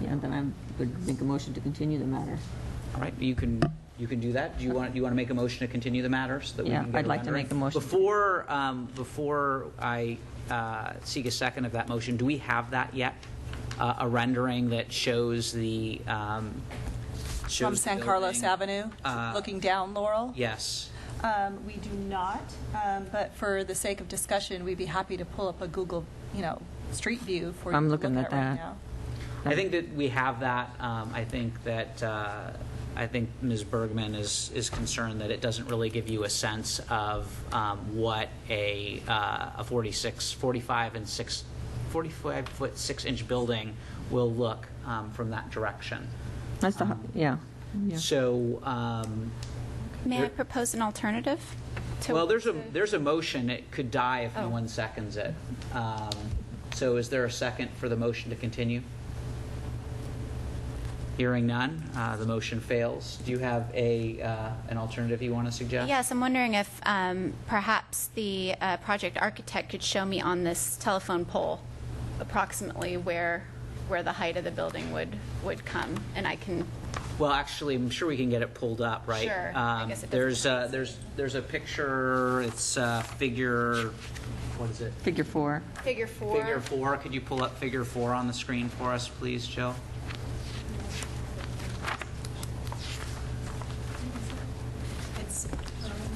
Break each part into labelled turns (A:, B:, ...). A: Yeah, then I would make a motion to continue the matter.
B: All right, you can, you can do that. Do you want, do you want to make a motion to continue the matter so that we
A: Yeah,
B: can get
A: I'd
B: a
A: like to
B: rendering?
A: make a motion.
B: Before, um, before I uh, seek a second of that motion, do we have that yet? Uh, A rendering that shows the, um, shows
C: From
B: the
C: San Carlos
B: building?
C: Avenue,
B: Uh,
C: looking down Laurel?
B: Yes.
C: Um, We do not, um, but for the sake of discussion, we'd be happy to pull up a Google, you know, street view for you
A: I'm
C: to look
A: looking
C: at
A: at
C: right
A: that.
C: now.
B: I think that we have that. Um, I think that, uh, I think Ms. Bergman is, is concerned that it doesn't really give you a sense of um, what a, uh, a 46, 45 and 6, 45 foot 6 inch building will look um, from that direction.
A: That's the, hu- Um, yeah, yeah.
B: So, um,
D: May I
B: There-
D: propose an alternative? to-
B: well, there's a, there's a motion. It could die if no
D: Oh.
B: one seconds it. Um, So is there a second for the motion to continue? Hearing none, uh, the motion fails. Do you have a, uh, an alternative you want to suggest?
D: Yes, I'm wondering if um, perhaps the uh, project architect could show me on this telephone pole approximately where, where the height of the building would, would come, and I can,
B: Well, actually, I'm sure we can get it pulled up, right?
D: Sure. I
B: Um,
D: guess it doesn't
B: There's, uh,
D: matter.
B: there's, there's a picture, it's uh, figure, what is it?
A: Figure four.
D: figure four.
B: Figure four, could you pull up figure four on the screen for us, please, Jill?
C: It's,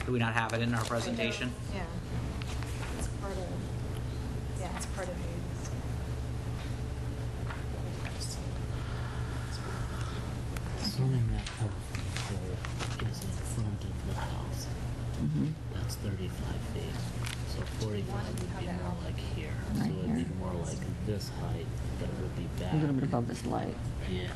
B: Do we not have it in our presentation?
C: yeah. It's part of, yeah, it's part of
E: Assuming that telephone pole is in front of the house,
A: Mm-hmm.
E: that's thirty-five feet. So forty-five would be more like here, so
A: Right
E: it'd be
A: here.
E: more like this height, but it would be
A: A little bit
E: back.
A: above this light.
E: Yeah.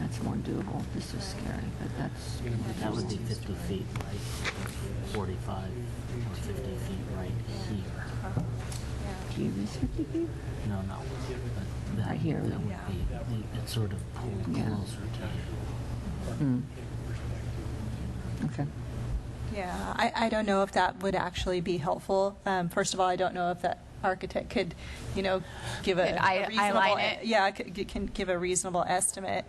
A: That's more doable. This is scary, but that's.
E: That would be fifty feet like forty-five or fifty feet right here.
A: Do you use fifty feet?
E: No, no. but that-
A: Right here,
E: That would
A: yeah.
E: be, it's sort of pulled
A: Yeah.
E: closer to
A: Hmm. Okay.
C: Yeah, I, I don't know if that would actually be helpful. Um, First of all, I don't know if that architect could, you know, give a
D: Could
C: a
D: eye-
C: reasonable. e,
D: eyeline it?
C: Yeah, could- can give a reasonable estimate,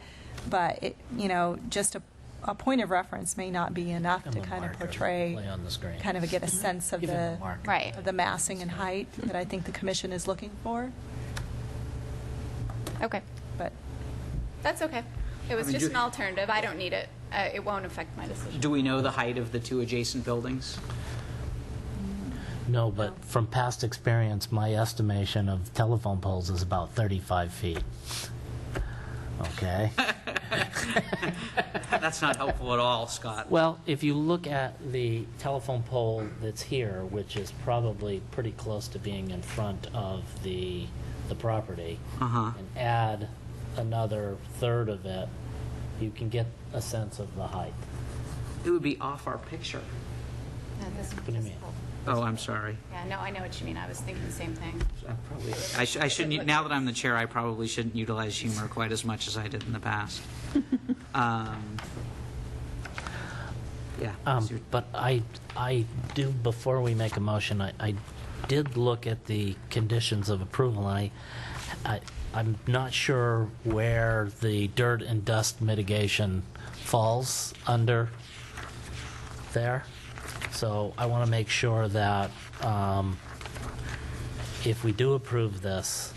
C: but, it- you know, just a, a point of reference may not be enough
E: Give
C: to
E: them a
C: kind of
E: marker,
C: portray.
E: lay on the screen. Mm-hmm.
C: Kind of get a sense of
E: Give them
C: the,
E: a marker.
D: Right.
C: of the massing and height that I think the commission is looking for,
D: Okay,
C: but
D: that's okay. It
B: I
D: was
B: mean,
D: just
B: you-
D: an alternative, I don't need it. Uh, It won't affect my decision.
B: Do we know the height of the two adjacent buildings?
E: No, but from past experience, my estimation of telephone poles is about 35 feet. Okay?
B: That's not helpful at all, Scott.
E: well, if you look at the telephone pole that's here, which is probably pretty close to being in front of the, the property,
B: Uh-huh.
E: and add another third of it, you can get a sense of the height.
B: It would be off our picture.
D: No, this
E: What do you mean?
B: Oh, I'm sorry.
D: Yeah, no, I know what you mean, I was thinking the same thing.
B: I probably, I sh- I shouldn't, now that I'm the chair, I probably shouldn't utilize humor quite as much as I did in the past. Um, Yeah.
E: Um,
B: so you're-
E: But I, I do, before we make a motion, I, I did look at the conditions of approval, and I, I, I'm not sure where the dirt and dust mitigation falls under there. So I want to make sure that um, if we do approve this,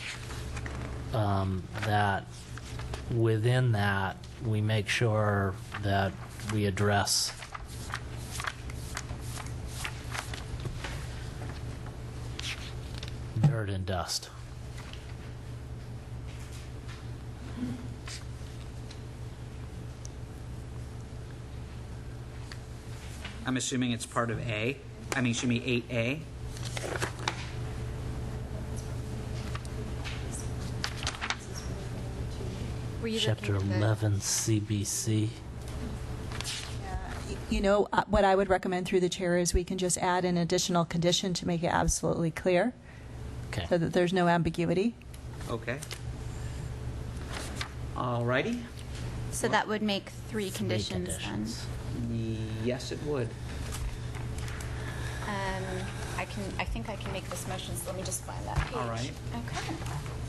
E: um, that within that, we make sure that we address dirt and dust.
B: I'm assuming it's part of A. I mean, should be 8A.
D: Were you
E: Chapter
D: looking at the-
E: 11 CBC.
C: You know, uh, what I would recommend through the chair is we can just add an additional condition to make it absolutely clear,
E: Okay.
C: so that there's no ambiguity.
B: Okay. All righty.
D: So that would make three
E: Three
D: conditions then.
E: conditions.
B: Yes, it would.
D: Um, I can, I think I can make this motion, so let me just find that page.
B: All right.
D: Okay.